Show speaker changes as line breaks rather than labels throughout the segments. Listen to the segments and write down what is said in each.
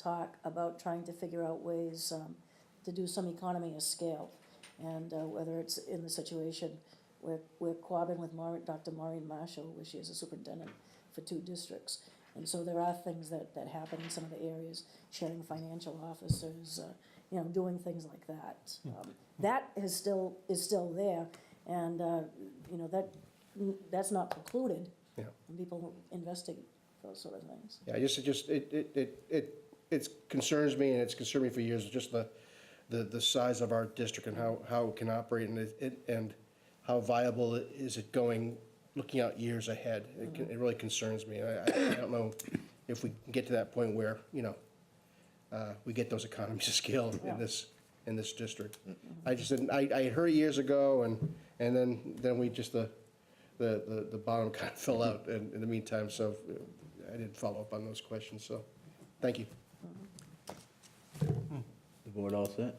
talk about trying to figure out ways um, to do some economy of scale. And uh, whether it's in the situation where we're cooperating with Maureen, Dr. Maureen Marshall, where she is a superintendent for two districts. And so there are things that, that happen in some of the areas, sharing financial officers, uh, you know, doing things like that.
Hmm.
Um, That is still, is still there, and, uh, you know, that, that's not precluded.
Yeah.
And people investigate those sort of things.
Yeah, I just, it just, it, it, it, it it's concerns me and it's concerned me for years, just the, the, the size of our district and how, how it can operate and it- it, and how viable it- is it going, looking out years ahead. It, can- it really concerns me. I, I I don't know if we can get to that point where, you know, uh, we get those economies of scale
Yeah.
in this, in this district. I just didn't, I, I heard it years ago and, and then, then we just, the, the, the- the bottom kind of fell out in, in the meantime, so uh, I didn't follow up on those questions, so, thank you.
The board all set?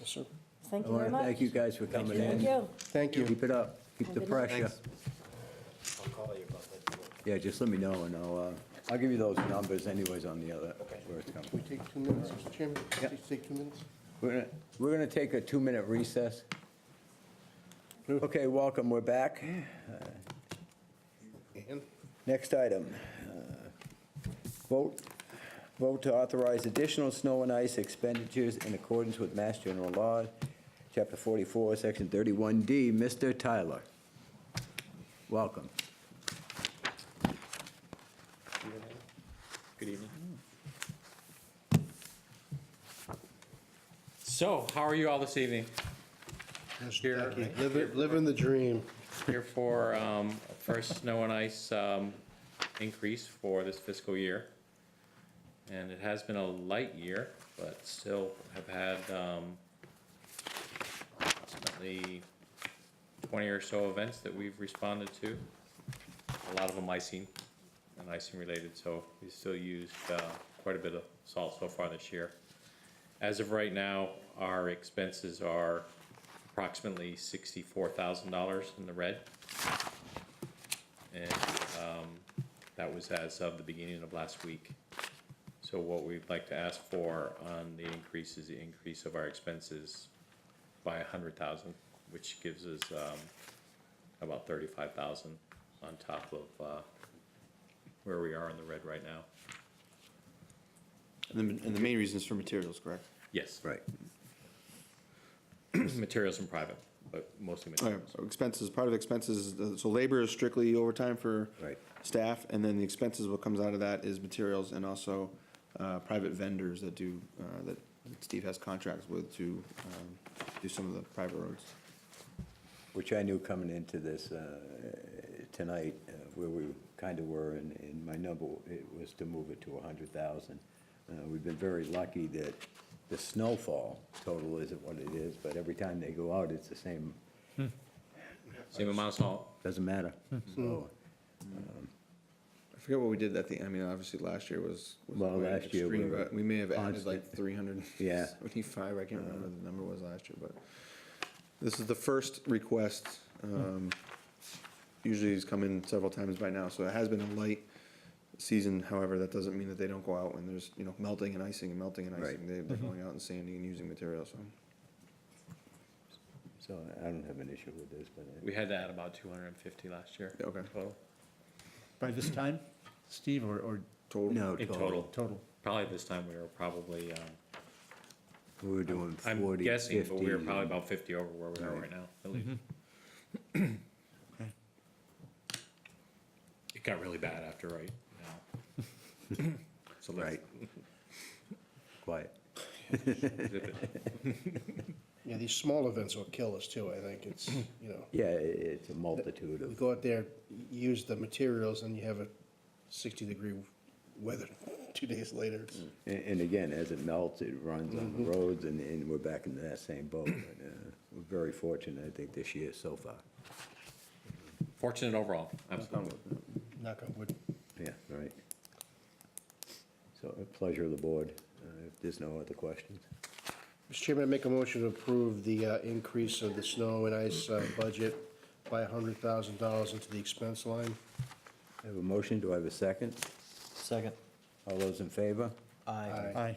Yes, sir.
Thank
I
you very
want to
much.
thank you guys for coming
Thank
in.
you.
Thank you.
Keep it up, keep the
Thank you.
pressure.
I'll call you about that. too.
Yeah, just let me know and I'll, uh, I'll give you those numbers anyways on the other, where it's
Can
coming.
we take two minutes, Mr. Chairman?
Yeah.
Please Take two minutes?
We're gonna, we're gonna take a two-minute recess. Okay, welcome, we're back.
And?
Next item, uh, vote, vote to authorize additional snow and ice expenditures in accordance with Mass General Law, Chapter 44, Section 31D. Mr. Tyler, welcome.
Good evening. So, how are you all this evening? Here.
Living, living the dream.
Here for um, first snow and ice um, increase for this fiscal year. And it has been a light year, but still have had um, approximately 20 or so events that we've responded to. A lot of them icing and icing related, so we still used uh, quite a bit of salt so far this year. As of right now, our expenses are approximately sixty-four thousand dollars in the red. And, um, that was as of the beginning of last week. So what we'd like to ask for on the increase is the increase of our expenses by a hundred thousand, which gives us, um, about thirty-five thousand on top of, uh, where we are in the red right now.
And the, and the main reason is for materials, correct?
Yes,
Right.
materials and private, but mostly
All right,
materials.
so expenses, part of expenses, is the- so labor is strictly overtime for
Right.
staff, and then the expenses, what comes out of that is materials and also uh, private vendors that do, uh, that Steve has contracts with to um, do some of the private roads.
Which I knew coming into this uh, tonight, uh, where we kind of were, and, and my number, it was to move it to 100,000. Uh, We've been very lucky that the snowfall total isn't what it is, but every time they go out, it's the same,
Same amount of salt.
doesn't matter. So,
I forget what we did at the, I mean, obviously, last year was. was
Well,
quite
last year we
extreme,
were
but We may have added like
constant.
three hundred
Yeah. Uh,
seventy-five, I can't remember what the number was last year, but this is the first request.
Hmm.
um, Usually it's come in several times by now, so it has been a light season, however, that doesn't mean that they don't go out and there's, you know, melting and icing and melting and icing. They-
Mm-hmm.
They're going out and sanding and using materials, so.
so I don't have an issue with this, but I-
We had to add about two hundred and fifty last year.
Yeah, okay.
Total.
By this time, Steve, or, or
Total.
no,
In total.
total.
total?
Probably this time we were probably, um,
We were doing 40,
I'm guessing, but we were
50,
probably
and-
about fifty over where we are right now, at least. It got really bad after right now. So let's
Right. Quiet.
zip it.
Yeah, these small events will kill us too, I think. It's, you know,
Yeah, i- it's a multitude
we
of,
go out there, use the materials and you have a sixty-degree weather two days later. It's-
a- and again, as it melts, it runs on the roads, and, and we're back into that same boat. But, uh, We're very fortunate, I think, this year so far.
Fortunate overall, absolutely.
Knock on wood.
Yeah, right. So, a pleasure of the board, uh, if there's no other questions.
Mr. Chairman, I make a motion to approve the uh, increase of the snow and ice uh, budget by $100,000 into the expense line.
I have a motion, do I have a second?
Second.
All those in favor?
Aye.
Aye.